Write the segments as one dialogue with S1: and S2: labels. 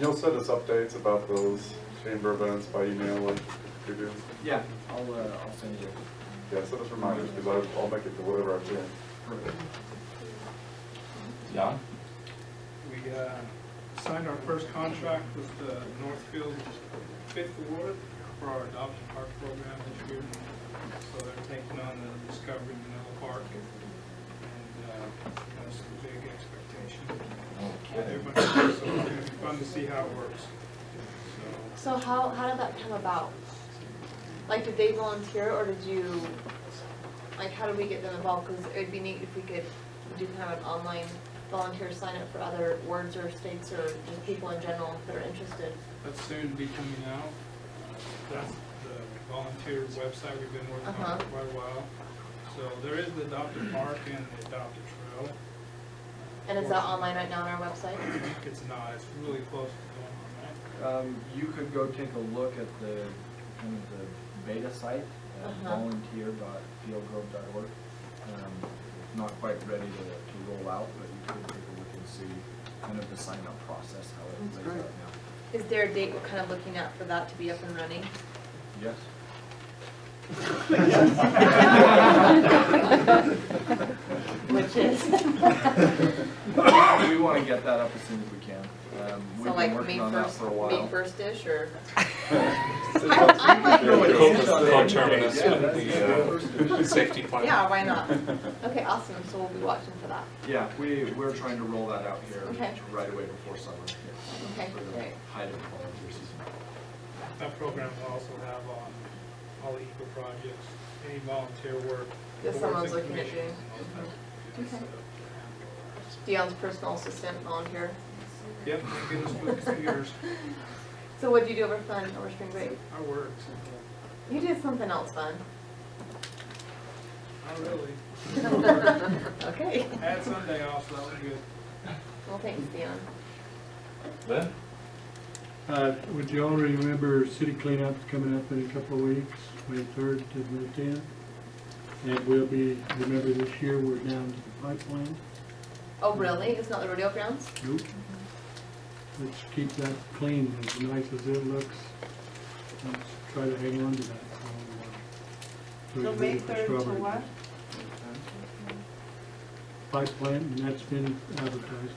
S1: You'll send us updates about those chamber events by email like you do?
S2: Yeah, I'll, uh, I'll send you.
S1: Yeah, send us reminders, because I'll make it to whatever I'm doing.
S3: John?
S4: We uh, signed our first contract with the Northfield Fifth Ward for our adoption park program this year. So they're taking on the Discovery Manila Park and uh, that's the big expectation. Everybody, so it's gonna be fun to see how it works. So,
S5: So how, how did that come about? Like, did they volunteer or did you, like, how did we get them involved? Because it would be neat if we could do kind of an online volunteer sign up for other words or states or just people in general that are interested.
S4: That's soon to be coming out. That's the volunteer website we've been working on
S5: Uh-huh.
S4: for quite a while. So there is the adopted park and the adopted trail.
S5: And is that online right now on our website?
S4: I think it's not, it's really close to going on that.
S2: Um, you could go take a look at the, kind of the beta site at
S5: Uh-huh.
S2: volunteer.fieldgrove.org. Um, it's Not quite ready to, to roll out, but you could take a look and see kind of the sign-up process, how it
S5: That's
S2: plays out
S5: great.
S2: now.
S5: Is there a date we're kind of looking at for that to be up and running?
S2: Yes?
S5: Which is?
S2: We want to get that up as soon as we can. Um,
S5: So
S2: We've been
S5: like May
S2: working on that
S5: first,
S2: for a while.
S5: May first-ish or?
S6: Coterminous
S2: Yeah,
S6: with
S2: that's
S6: the uh, safety plan.
S5: Yeah, why not? Okay, awesome. So we'll be watching for that.
S2: Yeah, we, we're trying to roll that out here
S5: Okay.
S2: right away before summer.
S5: Okay,
S2: For the
S5: great.
S2: height of volunteer season.
S4: That program will also have on all the eco projects, any volunteer work.
S5: Yes, someone's
S4: boards and
S5: looking at Mm-hmm.
S4: commissions and all that.
S5: Okay.
S4: So,
S5: Dion's personal assistant volunteer.
S4: Yep, get us with computers,
S5: So what'd you do over fun over spring break?
S4: I work.
S5: You did something else fun.
S4: Not really.
S5: Okay.
S4: I had Sunday off, so that was good.
S5: Well, thanks, Dion.
S3: Ben?
S7: Uh, Would you all remember city cleanup coming up in a couple of weeks, twenty-third to the tenth? And we'll be, remember this year, we're down to the pipeline.
S5: Oh, really? It's not the rodeo grounds?
S7: Nope. Let's keep that clean, as nice as it looks. Let's try to hang on to that for a little while. we
S8: So
S7: can
S8: May
S7: leave the
S8: third to
S7: strawberry
S8: what?
S7: Pipeline, and that's been advertised.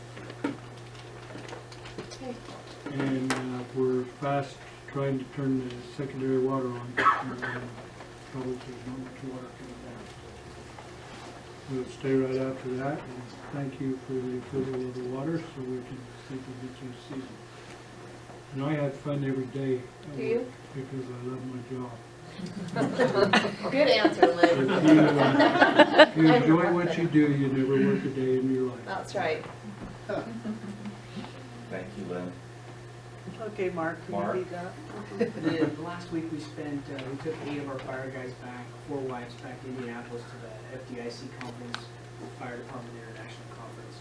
S5: Okay.
S7: and uh, we're fast trying to turn the secondary water on. and, uh, Probably there's not much water coming down. We'll stay right after that, and thank you for the approval of the water, so we can see if we get through the season. And I have fun every day. uh,
S5: Do you?
S7: Because I love my job.
S5: Good answer, Liz.
S7: If you, uh, you enjoy what you do, you never work a day in your life.
S5: That's right.
S3: Thank you, Lynn.
S8: Okay, Mark, can you
S3: Mark.
S8: read that?
S9: The, last week we spent, uh, we took eight of our fire guys back, four wives back to Indianapolis to the FDIC conference, Fire Department International Conference.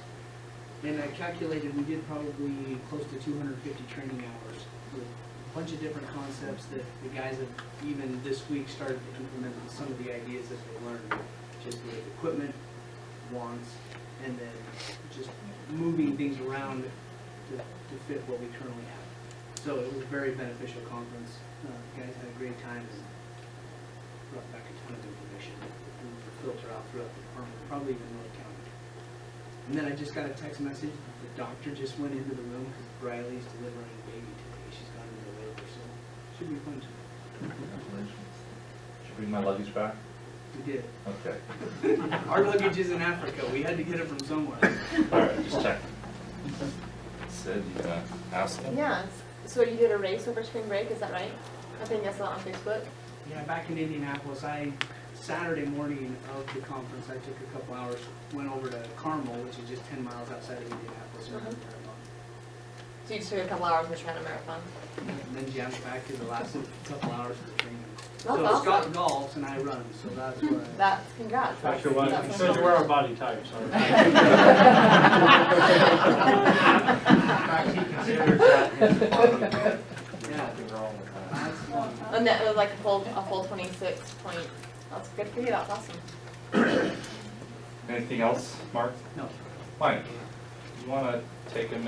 S9: And I calculated, we did probably close to two hundred and fifty training hours with a bunch of different concepts that the guys have even this week started to implement with some of the ideas that they learned. Just the equipment, wants, and then just moving things around to, to fit what we currently have. So it was a very beneficial conference. Uh, Guys had a great time and brought back a ton of information that we could filter out throughout the department, probably even North County. And then I just got a text message, the doctor just went into the room because Briley's delivering a baby today. She's gone into labor, so should be fun tonight.
S3: Congratulations. Should I bring my luggage back?
S9: We did.
S3: Okay.
S9: Our luggage is in Africa. We had to get it from somewhere.
S3: All right, just check. Sid, you gonna ask them?
S5: Yes. So you did a race over spring break, is that right? I think I saw it on Facebook.
S9: Yeah, back in Indianapolis, I, Saturday morning of the conference, I took a couple hours, went over to Carmel, which is just ten miles outside of Indianapolis, and ran
S5: Uh-huh.
S9: a
S5: So you just took a couple hours and ran a marathon.
S9: marathon. And then jammed back to the last couple hours of training.
S5: That's
S9: So Scott
S5: Oh, awesome.
S9: golfs and I run, so that's what I.
S5: That's, congrats. That's
S6: Dr. White,
S5: that's
S6: said you
S5: awesome.
S6: were a body type, sorry.
S9: Yeah,
S2: wrong with that.
S9: that's fun.
S5: And that was like a full, a full twenty-six point. That's good for you, that's awesome.
S3: Anything else, Mark?
S9: No.
S3: Mike, you wanna take a minute